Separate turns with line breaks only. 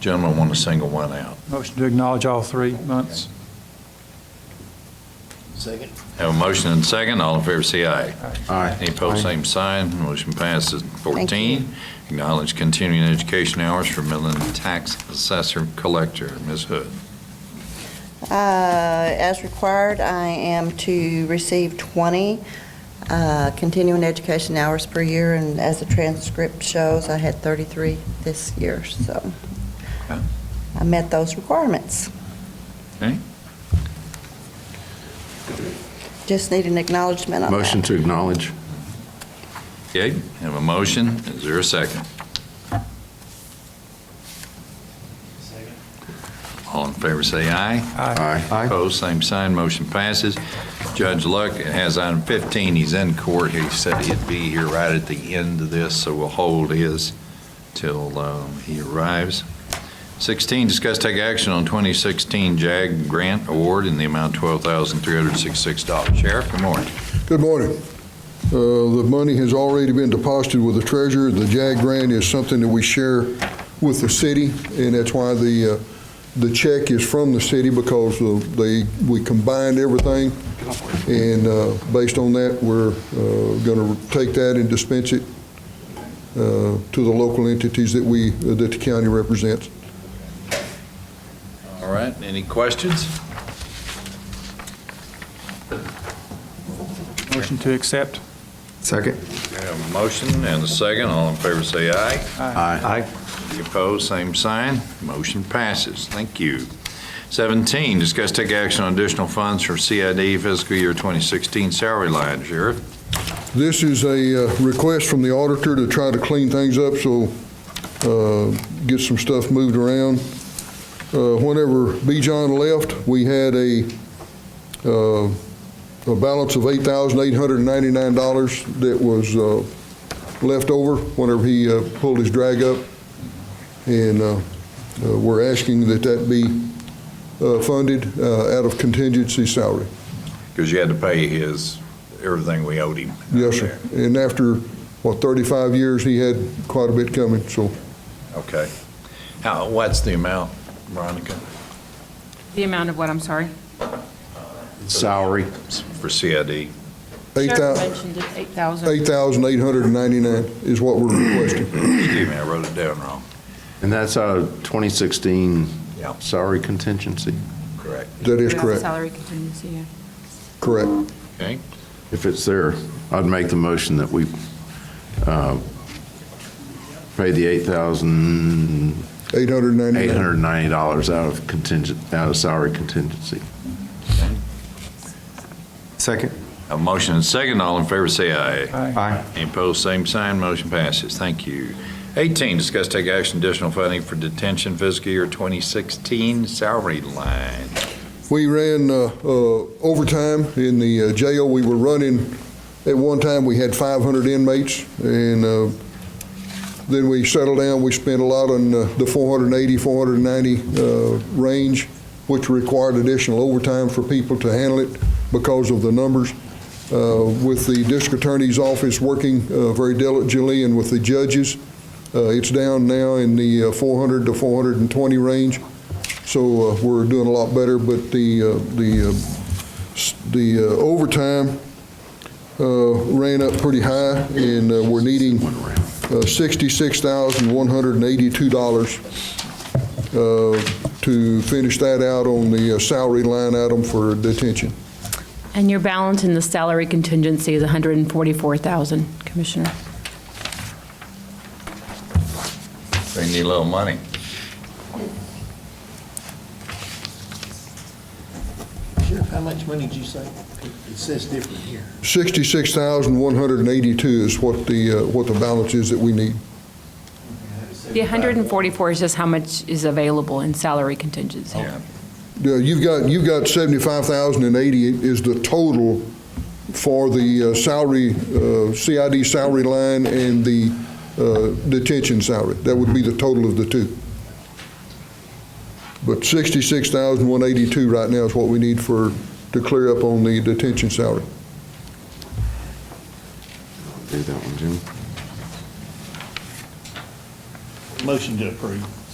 gentleman want to single one out.
Motion to acknowledge all three months.
Second.
Have a motion and second, all in favor, say aye.
Aye.
Any opposed, same sign, motion passes.
you.
14, acknowledge continuing education hours for Midland Tax Assessor Collector, Ms. Hood.
Uh, As required, I am to receive 20 uh, continuing education hours per year, and as the transcript shows, I had 33 this year, so
Okay.
I met those requirements.
Okay.
Just need an acknowledgement on that.
Motion to acknowledge.
Okay, have a motion, is there a second?
Second.
All in favor, say aye.
Aye.
Opposed, same sign, motion passes. Judge Luck has item 15, he's in court, he said he'd be here right at the end of this, so we'll hold his till um, he arrives. 16, discuss take action on 2016 JAG Grant Award in the amount of $12,366. Sheriff, good morning.
Good morning. Uh, The money has already been deposited with the treasurer. The JAG grant is something that we share with the city, and that's why the, uh, the check is from the city, because of they, we combined everything, and uh, based on that, we're going to take that and dispense it uh, to the local entities that we, uh, that the county represents.
All right, any questions?
Motion to accept.
Second.
We have a motion and a second, all in favor say aye.
Aye.
Any Opposed, same sign. Motion passes. Thank you. 17, discuss take action on additional funds for CID fiscal year 2016 salary line. Sheriff?
This is a uh, request from the auditor to try to clean things up, so uh, get some stuff moved around. Uh, Whenever B. John left, we had a, uh, a balance of $8,899 that was uh, left over whenever he uh, pulled his drag up. And uh, uh, we're asking that that be uh, funded uh, out of contingency salary.
Because you had to pay his, everything we owed him.
Yes, sir. And after, what, 35 years, he had quite a bit coming, so
Okay. How, what's the amount, Veronica,
The amount of what, I'm sorry?
Salary.
for CID?
eight thou-
Sheriff mentioned it, 8,000.
8,899 is what we're requesting.
Excuse me, I wrote it down wrong.
And that's out of 2016
Yeah.
salary contingency,
Correct.
That is
Yeah,
correct,
Salary contingency, yeah.
correct.
Okay.
if it's there. I'd make the motion that we uh, pay the $8,890
899.
out of contingent, out of salary contingency. Second.
A motion and second, all in favor say aye.
Aye.
Any opposed, same sign, motion passes. Thank you. 18, discuss take action additional funding for detention fiscal year 2016 salary line.
We ran uh, uh, overtime in the uh, jail. We were running, at one time, we had 500 inmates, and uh, then we settled down. We spent a lot on uh, the 480, 490 uh, range, which required additional overtime for people to handle it because of the numbers. Uh, With the district attorney's office working uh, very diligently, and with the judges, uh, it's down now in the uh, 400 to 420 range. So uh, we're doing a lot better, but the, uh, the, uh, s- the uh, overtime uh, ran up pretty high, and uh, we're needing uh, $66,182 uh, to finish that out on the uh, salary line item for detention.
And your balance in the salary contingency is 144,000, Commissioner.
They need a little money.
Sheriff, how much money did you say? It says different here.
$66,182 is what the, uh, what the balance is that we need.
The 144 is just how much is available in salary contingency.
Yeah.
Yeah, You've got, you've got 75,080 is the total for the uh, salary, uh, CID salary line and the uh, detention salary. That would be the total of the two. But 66,182 right now is what we need for, to clear up on the detention salary.
Do that one, Jim.
Motion to approve.